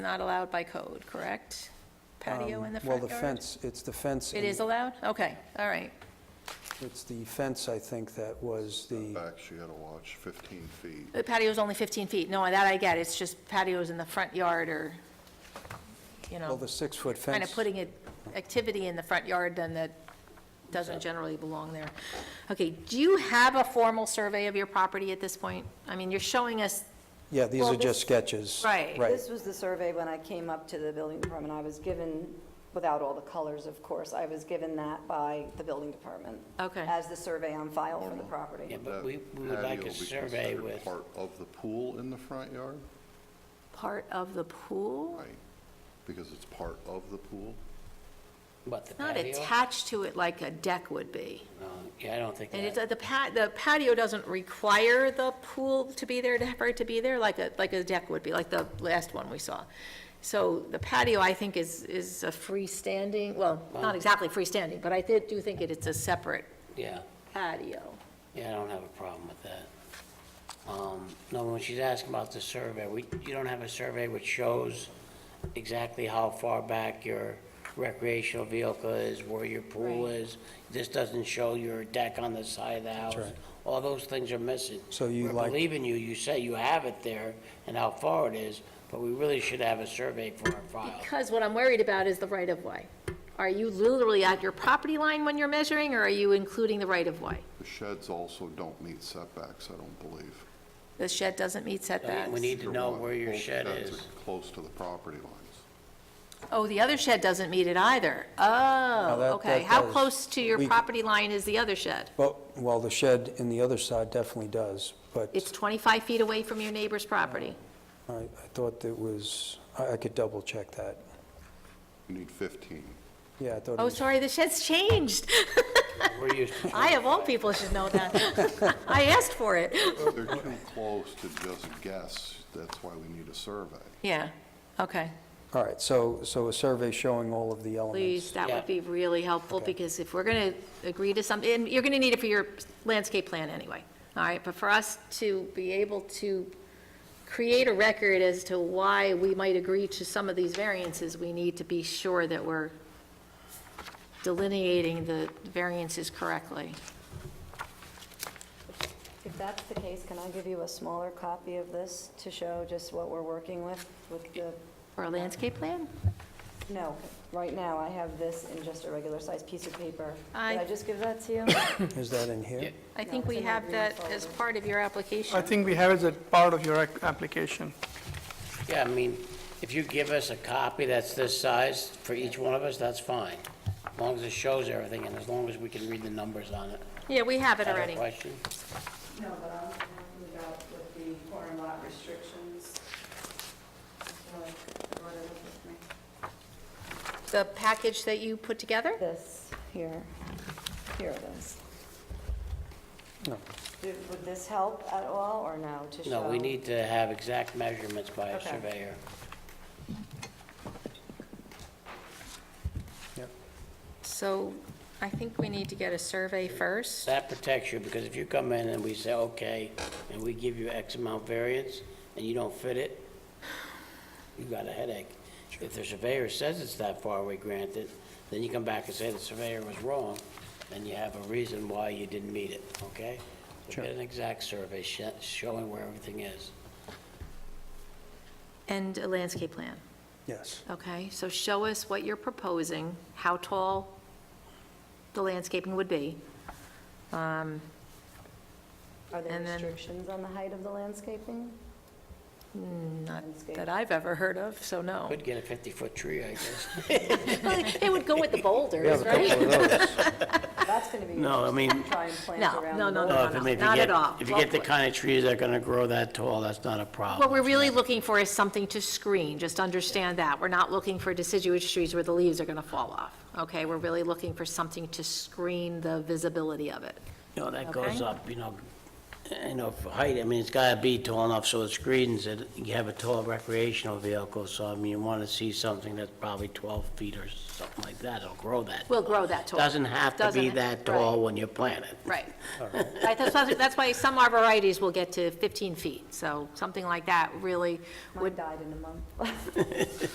Not allowed by code, correct? Patio in the front Um, Well, the yard? fence, it's the fence. It and is allowed? Okay, all right. It's the fence, I think, that was the, Back, you gotta watch 15 feet. The patio's only 15 feet. No, that I get. It's just patios in the front yard or, you well, know, the six-foot fence. kind of putting it, activity in the front yard then that doesn't generally belong there. Okay, do you have a formal survey of your property at this point? I mean, you're showing us, Yeah, these well, are this- just sketches. Right. Right. This was the survey when I came up to the building department. I was given, without all the colors, of course, I was given that by the building department. Okay. As the survey on file for the property. Yeah, but we, we would Patio like be a survey considered with, Part of the pool in the front yard, part of the pool? right? Because it's part of the pool. what, the Not patio? attached to it like a deck would be. No, Yeah, I don't think And it, that, the pat, the patio doesn't require the pool to be there, to for it to be there, like a, like a deck would be, like the last one we saw. So the patio, I think, is, is a freestanding, well, not exactly freestanding, but I did, do think it, it's a separate yeah, patio. yeah, I don't have a problem with that. Um, no, when she's asking about the survey, we, you don't have a survey which shows exactly how far back your recreational vehicle is, where your pool Right. is. This doesn't show your deck on the side of the house. right. All those things are missing. So you We're like- believing you, you say you have it there and how far it is, but we really should have a survey for our file. Because what I'm worried about is the right-of-way. Are you literally at your property line when you're measuring, or are you including the right-of-way? The sheds also don't meet setbacks, I don't believe. The shed doesn't meet So setbacks. We need to know where your Both shed sheds is. are Close to the property lines. Oh, the other shed doesn't meet it either. Oh, that- okay. that How does. close to your We- property line is the other shed? Well, well, the shed in the other side definitely does, but It's 25 feet away from your neighbor's property. I, I thought it was, I, I could double-check that. You need 15. Yeah, I thought it Oh, was, sorry, the shed's changed. We're used to I of all people should know that. I asked for it. They're too close to just guess, that's why we need a survey. Yeah, okay. all right, so, so a survey showing all of the Please, elements. that would be really helpful, Okay. because if we're going to agree to something, and you're going to need it for your landscape plan anyway, all right? But for us to be able to create a record as to why we might agree to some of these variances, we need to be sure that we're delineating the variances correctly. If that's the case, can I give you a smaller copy of this to show just what we're working with, with the, For a landscape plan? no, right now, I have this in just a regular-sized piece of paper. I- Did I just give that to you? Is that in here? I think it's we in that have green that as folder. part of your application. I think we have it as a part of your ac- application. Yeah, I mean, if you give us a copy that's this size for each one of us, that's fine. As long as it shows everything and as long as we can read the numbers on it. Yeah, we have it Have a already. question? No, but I'm talking about with the corner lot restrictions. So, everyone look with me. The package that you put together? This, here, here it is. No. Did- Would this help at all, or no, to show? No, we need to have exact measurements by a Okay. surveyor. So I think we need to get a survey first. That protects you because if you come in and we say, okay, and we give you X amount variance and you don't fit it, you got a headache. If the surveyor says it's that far away granted, then you come back and say the surveyor was wrong, then you have a reason why you didn't meet it, okay? So Get an exact survey sh- showing where everything is. And a landscape plan. Yes. Okay, so show us what you're proposing, how tall the landscaping would be. Are there And then- restrictions on the height of the landscaping? Not Landscape. that I've ever heard of, so no. Could get a 50-foot tree, I guess. It would go with the We have boulders, a couple right? of those. That's going to be. No, I mean- Uh, Try and plant No, around. no, the no, wall. no, no, not at all. If you get the kind of trees that are going to grow that tall, that's not a problem. What we're really looking for is something to screen, just understand that. We're not looking for deciduous trees where the leaves are going to fall off, okay? We're really looking for something to screen the visibility of it. No, that goes Okay. up, you know, you know, for height, I mean, it's gotta be tall enough so it screens it. You have a tall recreational vehicle, so I mean, you wanna see something that's probably 12 feet or something like that, it'll grow that. We'll grow that tall. Doesn't have to be Doesn't- that right. tall when you plant it. Right. Right, That's why- that's why some arborvitae's will get to 15 feet, so something like that really Mine would, died in a month.